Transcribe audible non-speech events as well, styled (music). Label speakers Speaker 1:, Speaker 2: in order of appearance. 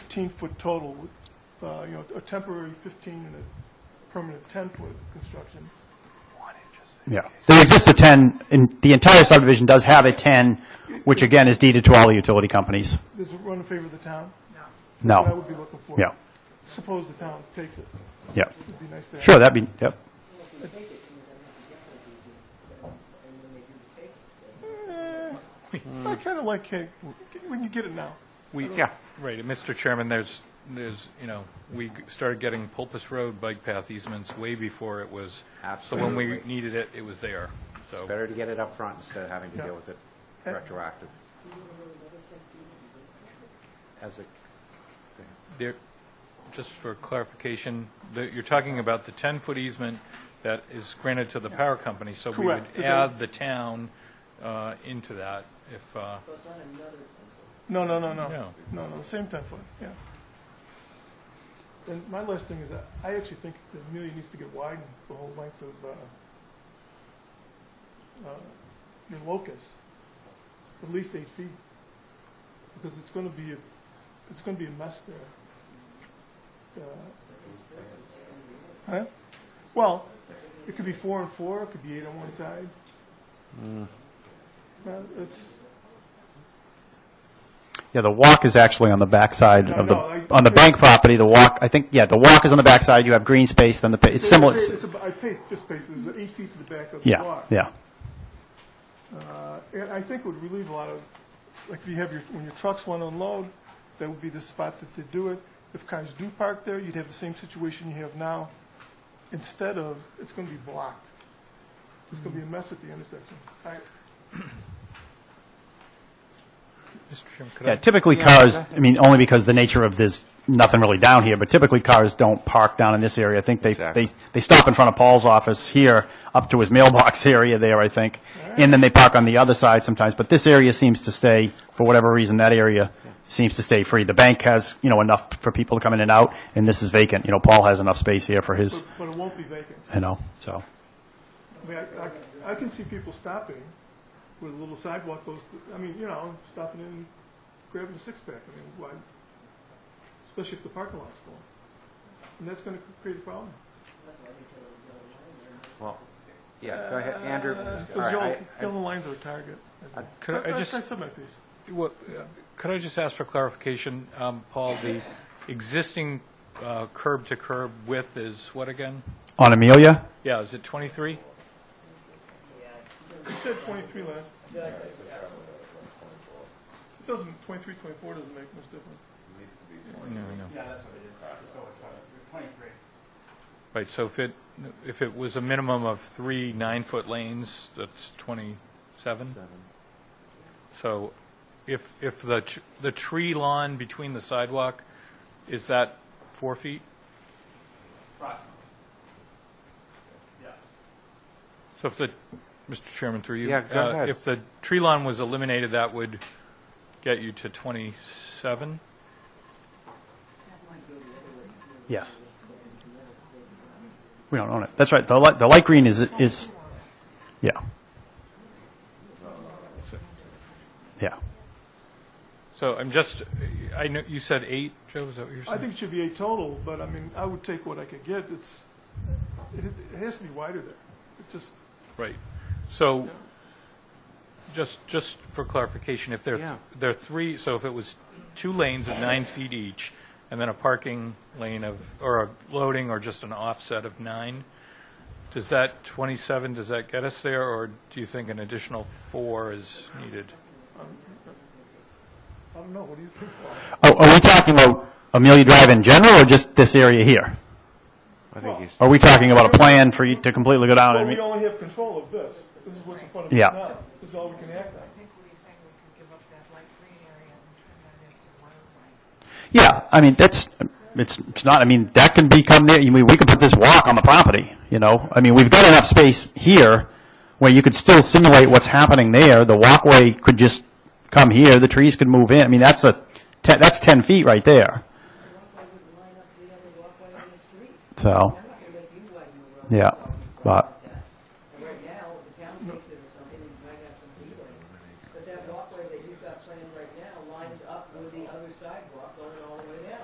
Speaker 1: 15-foot total, uh, you know, a temporary 15 and a permanent 10-foot construction.
Speaker 2: Yeah. There exists a 10, and the entire subdivision does have a 10, which again is deeded to all the utility companies.
Speaker 1: Does it run in favor of the town? What I
Speaker 2: No.
Speaker 1: would be looking for.
Speaker 2: Yeah,
Speaker 1: Suppose the town takes it.
Speaker 2: yeah.
Speaker 1: It'd be nice to have.
Speaker 2: Sure, that'd be, yep.
Speaker 1: I kind of like cake. We can get it now.
Speaker 3: We, yeah, right, and Mr. Chairman, there's, there's, you know, we g- started getting Pulpus Road bike path easements way before it was. So when we
Speaker 4: Absolutely.
Speaker 3: needed it, it was there, so.
Speaker 4: Better to get it up front instead of having to
Speaker 1: Yeah.
Speaker 4: deal with it
Speaker 1: And-
Speaker 4: retroactive. As a,
Speaker 3: There, just for clarification, the- you're talking about the 10-foot easement that is granted to the power company, so we would
Speaker 1: Correct.
Speaker 3: add the town uh, into that if, uh,
Speaker 1: No, no, no, no.
Speaker 3: No.
Speaker 1: No, no, same 10-foot, yeah. And my last thing is that I actually think the Amelia needs to get widened the whole length of, uh, uh, your locus, at least eight feet. Because it's going to be, a- it's going to be a mess there. Uh, Huh? Well, it could be four and four, it could be eight on one side. Well, it's,
Speaker 2: Yeah, the walk is actually on the backside
Speaker 1: No,
Speaker 2: of the,
Speaker 1: no, I-
Speaker 2: on the bank property, the walk, I think, yeah, the walk is on the backside, you have green space, then the, pa- it's similar,
Speaker 1: It's, it's, about- I paste, just paste, it's eight feet to the back of the
Speaker 2: yeah,
Speaker 1: block.
Speaker 2: yeah.
Speaker 1: Uh, And I think it would relieve a lot of, like if you have your, when your trucks want to unload, that would be the spot that they do it. If cars do park there, you'd have the same situation you have now. Instead of, it's going to be blocked. It's going to be a mess at the intersection. I,
Speaker 3: Mr. Chairman, could I?
Speaker 2: Yeah, typically cars, I mean, only because the nature of this, nothing really down here, but typically cars don't park down in this area. I think they, they, they stop in front of Paul's office here, up to his mailbox (laughs) area there, I think. And then they park on the other side sometimes, but this area seems to stay, for whatever reason, that area seems to stay free. The bank has, you know, enough for people to come in and out, and this is vacant. You know, Paul has enough space here for his,
Speaker 1: but, but it won't be vacant.
Speaker 2: you know, so.
Speaker 1: I mean, I, I, I can see people stopping where the little sidewalk goes, to- I mean, you know, stopping and grabbing a six-pack, I mean, why, especially if the parking lot's full. And that's gonna create a problem.
Speaker 4: well, yeah, go ahead, Andrew. All
Speaker 1: Uh, Those
Speaker 4: right,
Speaker 1: yellow,
Speaker 4: I- I-
Speaker 1: yellow lines are a target.
Speaker 3: Could I
Speaker 1: I-
Speaker 3: just-
Speaker 1: I said my piece.
Speaker 3: Well, Could I just ask for clarification, um, Paul, the existing uh, curb-to-curb width is what again?
Speaker 2: On Amelia?
Speaker 3: Yeah, is it 23?
Speaker 1: You said twenty-three last. It doesn't, twenty-three, twenty-four doesn't make much difference.
Speaker 3: No, no. Right, so if it, if it was a minimum of three nine-foot lanes, that's 27? So if, if the, tr- the tree lawn between the sidewalk, is that four feet? So if the, Mr. Chairman, through you.
Speaker 4: Yeah, go
Speaker 3: uh,
Speaker 4: ahead.
Speaker 3: If the tree lawn was eliminated, that would get you to 27?
Speaker 2: Yes. We don't own it. That's right. The light, the light green is, is, yeah. Yeah.
Speaker 3: So I'm just, I know, you said eight, Joe, is that what you're saying?
Speaker 1: I think it should be eight total, but I mean, I would take what I could get, it's, it, it has to be wider there. It just,
Speaker 3: Right. So, just, just for clarification, if there,
Speaker 4: Yeah.
Speaker 3: there are three, so if it was two lanes of nine feet each, and then a parking lane of, or a loading, or just an offset of nine, does that 27, does that get us there, or do you think an additional four is needed?
Speaker 1: I don't know, what do you think? Paul?
Speaker 2: Are, are we talking about Amelia Drive in general or just this area here?
Speaker 4: I think he's,
Speaker 2: Are we talking about a plan for you to completely go down
Speaker 1: But
Speaker 2: and
Speaker 1: we
Speaker 2: meet?
Speaker 1: only have control of this. This is what's in front of
Speaker 2: Yeah.
Speaker 1: us now. This is all we can act on.
Speaker 5: I think what he's saying, we could give up that light green area and turn that into one light.
Speaker 2: Yeah, I mean, that's, it's, it's not, I mean, that can become there, I mean, we could put this walk on the property, you know? I mean, we've got enough space here where you could still simulate what's happening there. The walkway could just come here, the trees could move in. I mean, that's a, te- that's 10 feet right there,
Speaker 6: I would line up the other walkway on the street.
Speaker 2: so,
Speaker 6: I'm not gonna make you widen the road.
Speaker 2: yeah. But,